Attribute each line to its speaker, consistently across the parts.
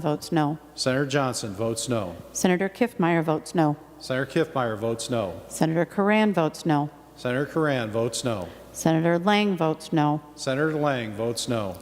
Speaker 1: votes no.
Speaker 2: Senator Johnson votes no.
Speaker 1: Senator Kiffmeyer votes no.
Speaker 2: Senator Kiffmeyer votes no.
Speaker 1: Senator Coran votes no.
Speaker 2: Senator Coran votes no.
Speaker 1: Senator Lang votes no.
Speaker 2: Senator Lang votes no.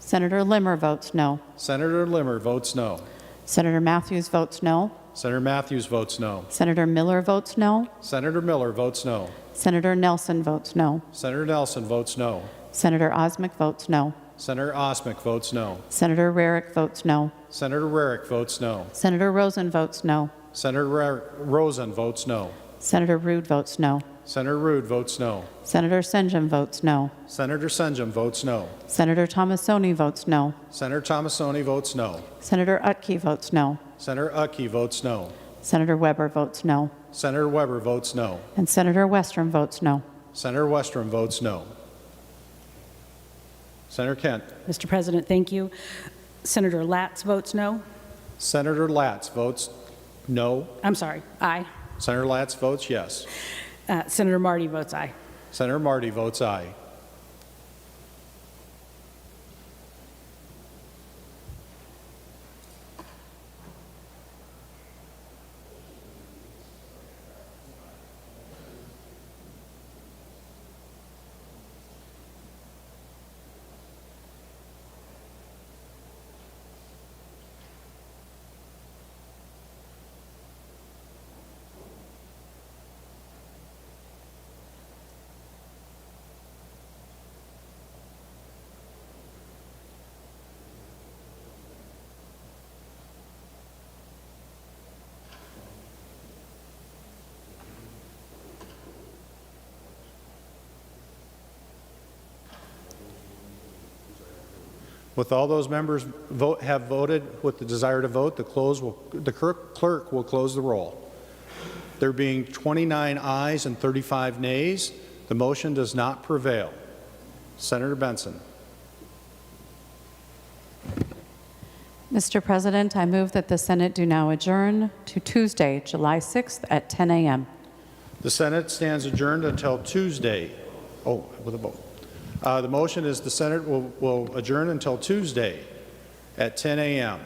Speaker 1: Senator Limmer votes no.
Speaker 2: Senator Limmer votes no.
Speaker 1: Senator Matthews votes no.
Speaker 2: Senator Matthews votes no.
Speaker 1: Senator Miller votes no.
Speaker 2: Senator Miller votes no.
Speaker 1: Senator Nelson votes no.
Speaker 2: Senator Nelson votes no.
Speaker 1: Senator Osmic votes no.
Speaker 2: Senator Osmic votes no.
Speaker 1: Senator Rarick votes no.
Speaker 2: Senator Rarick votes no.
Speaker 1: Senator Rosen votes no.
Speaker 2: Senator Ra- Rosen votes no.
Speaker 1: Senator Rude votes no.
Speaker 2: Senator Rude votes no.
Speaker 1: Senator Senjum votes no.
Speaker 2: Senator Senjum votes no.
Speaker 1: Senator Thomasoni votes no.
Speaker 2: Senator Tomasoni votes no.
Speaker 1: Senator Utke votes no.
Speaker 2: Senator Uckey votes no.
Speaker 1: Senator Weber votes no.
Speaker 2: Senator Weber votes no.
Speaker 1: And Senator Westrom votes no.
Speaker 2: Senator Westrom votes no. Senator Kent.
Speaker 3: Mr. President, thank you. Senator Latz votes no.
Speaker 2: Senator Latz votes no.
Speaker 3: I'm sorry, aye.
Speaker 2: Senator Latz votes yes.
Speaker 3: Uh, Senator Marty votes aye.
Speaker 2: Senator Marty votes aye. With all those members vote, have voted with the desire to vote, the close will, the clerk clerk will close the roll. There being 29 ayes and 35 nays, the motion does not prevail. Senator Benson.
Speaker 1: Mr. President, I move that the Senate do now adjourn to Tuesday, July 6th at 10 a.m.
Speaker 2: The Senate stands adjourned until Tuesday. Oh, with a vote. Uh, The motion is the Senate will- will adjourn until Tuesday at 10 a.m.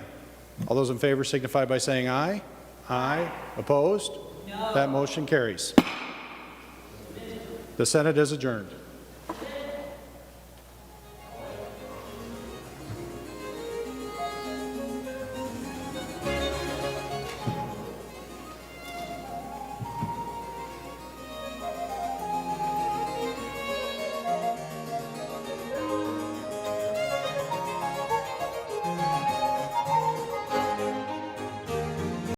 Speaker 2: All those in favor signify by saying aye. Aye. Opposed? No. That motion carries. The Senate is adjourned.